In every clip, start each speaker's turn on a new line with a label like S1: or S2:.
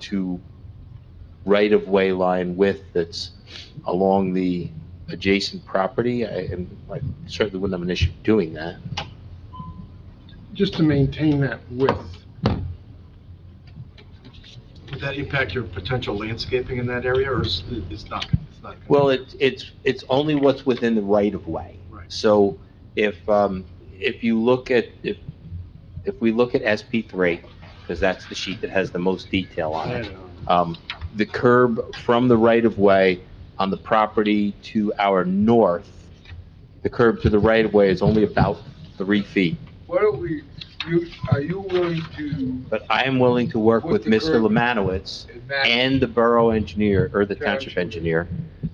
S1: to right-of-way line width that's along the adjacent property, I and I certainly wouldn't have an issue doing that.
S2: just to maintain that width. Would that impact your potential landscaping in that area, or is it's not, it's not?
S1: Well, it's, it's, it's only what's within the right-of-way.
S2: Right.
S1: So if, um, if you look at, if, if we look at SP three, because that's the sheet that has the most detail on it, um, the curb from the right-of-way on the property to our north, the curb to the right-of-way is only about three feet.
S3: Why don't we, you, are you willing to
S1: But I am willing to work with
S3: With the
S1: Mr.
S3: curb.
S1: Lemanowitz
S3: enact,
S1: and the borough engineer, or the township
S3: Township.
S1: engineer,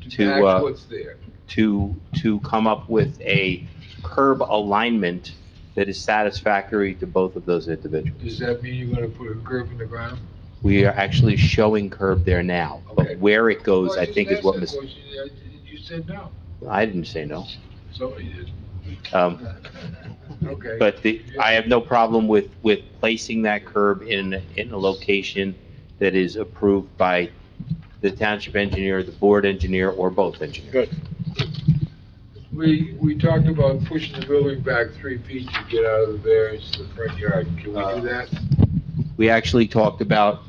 S3: to
S1: to, uh,
S3: enact what's there?
S1: to, to come up with a curb alignment that is satisfactory to both of those individuals.
S3: Does that mean you're gonna put a curb in the ground?
S1: We are actually showing curb there now,
S3: Okay.
S1: but where it goes,
S3: Well,
S1: I
S3: just
S1: think is
S3: asked
S1: what
S3: that
S1: Ms.,
S3: question, uh, You said no,
S1: I didn't say no.
S3: so you did.
S1: Um,
S3: Okay.
S1: But the, I have no problem with, with placing that curb in, in a location that is approved by the township engineer, the board engineer, or both engineers.
S3: We, we talked about pushing the building back three feet to get out of the variance to the front yard. Can we
S1: Uh,
S3: do that?
S1: We actually talked about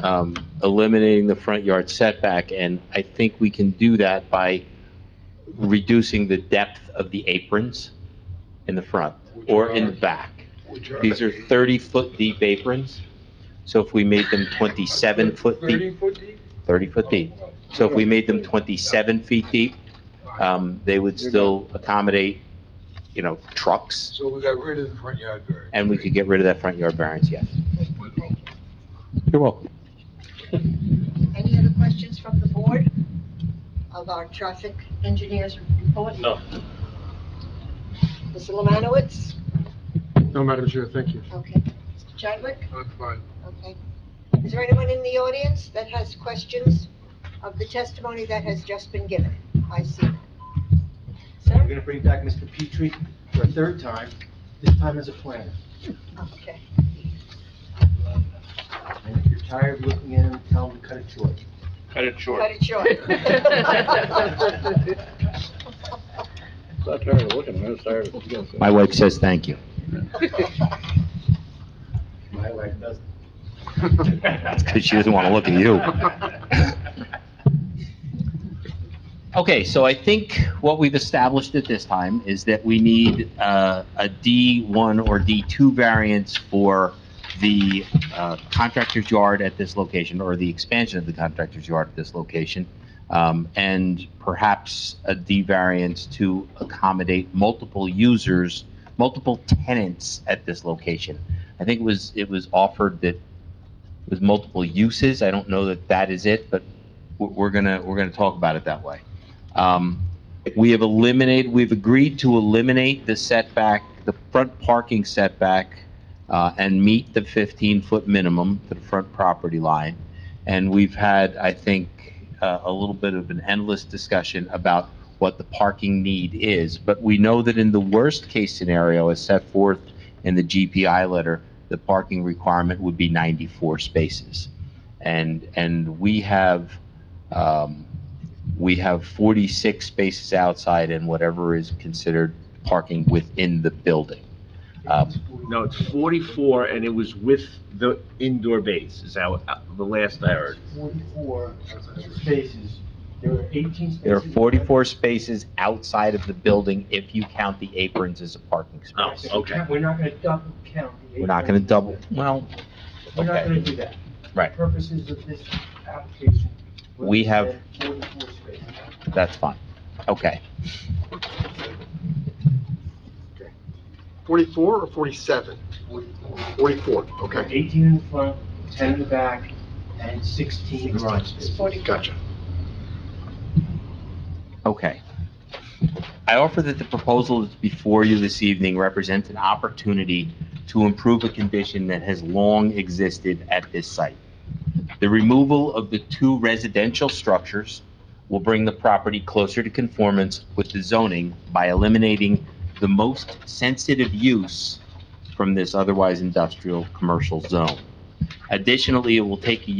S1: um, eliminating the front yard setback, and I think we can do that by reducing the depth of the aprons in the front or in the back.
S3: Which are-
S1: These are 30-foot deep aprons, so if we made them 27-foot deep,
S3: Thirty foot deep?
S1: 30-foot deep.
S3: Oh,
S1: So if we made them 27 feet deep,
S3: fine.
S1: um, they would still accommodate, you know, trucks,
S3: So we got rid of the front yard variance.
S1: and we could get rid of that front yard variance, yes. You're welcome.
S4: Any other questions from the board of our traffic engineers report?
S5: No.
S4: Mr. Lemanowitz?
S2: No, Madam Chair, thank you.
S4: Okay. Mr. Chadwick?
S3: That's fine.
S4: Okay. Is there anyone in the audience that has questions of the testimony that has just been given? I see. none.
S6: We're
S4: Sir?
S6: gonna bring back Mr. Petrie for a third time, this time as a planner.
S4: Okay.
S6: And if you're tired of looking at him, tell him to cut it short.
S5: Cut it short.
S4: Cut it short.
S5: Not tired of looking, I'm tired of looking.
S1: My wife says thank you.
S6: My wife doesn't.
S1: That's because she doesn't want to look at you. Okay, so I think what we've established at this time is that we need uh, a D1 or D2 variance for the uh, contractor's yard at this location, or the expansion of the contractor's yard at this location, um, and perhaps a D variance to accommodate multiple users, multiple tenants at this location. I think it was, it was offered that with multiple uses. I don't know that that is it, but we're- we're gonna, we're gonna talk about it that way. Um, We have eliminated, we've agreed to eliminate the setback, the front parking setback, uh, and meet the 15-foot minimum to the front property line. And we've had, I think, uh, a little bit of an endless discussion about what the parking need is. But we know that in the worst-case scenario, as set forth in the GPI letter, the parking requirement would be 94 spaces. And, and we have, um, we have 46 spaces outside and whatever is considered parking within the building. Um,
S7: No, it's 44, and it was with the indoor base, is how, uh, the last I heard.
S6: Forty-four spaces, there were eighteen spaces.
S1: There are 44 spaces outside of the building if you count the aprons as a parking
S7: Oh,
S1: space.
S7: okay.
S6: We're not gonna double count. the
S1: We're not going to
S6: 18.
S1: double, well,
S6: We're not
S1: okay.
S6: gonna do that.
S1: Right.
S6: For Purposes of this application. we're
S1: We
S6: gonna
S1: have-
S6: say Forty-four spaces.
S1: that's fine. Okay.
S2: 44 or 47? 44, okay.
S6: Eighteen in the front, ten in the back, and sixteen garage spaces.
S2: Gotcha.
S1: Okay. I offer that the proposal that's before you this evening represents an opportunity to improve a condition that has long existed at this site. The removal of the two residential structures will bring the property closer to conformance with the zoning by eliminating the most sensitive use from this otherwise industrial commercial zone. Additionally, it will take a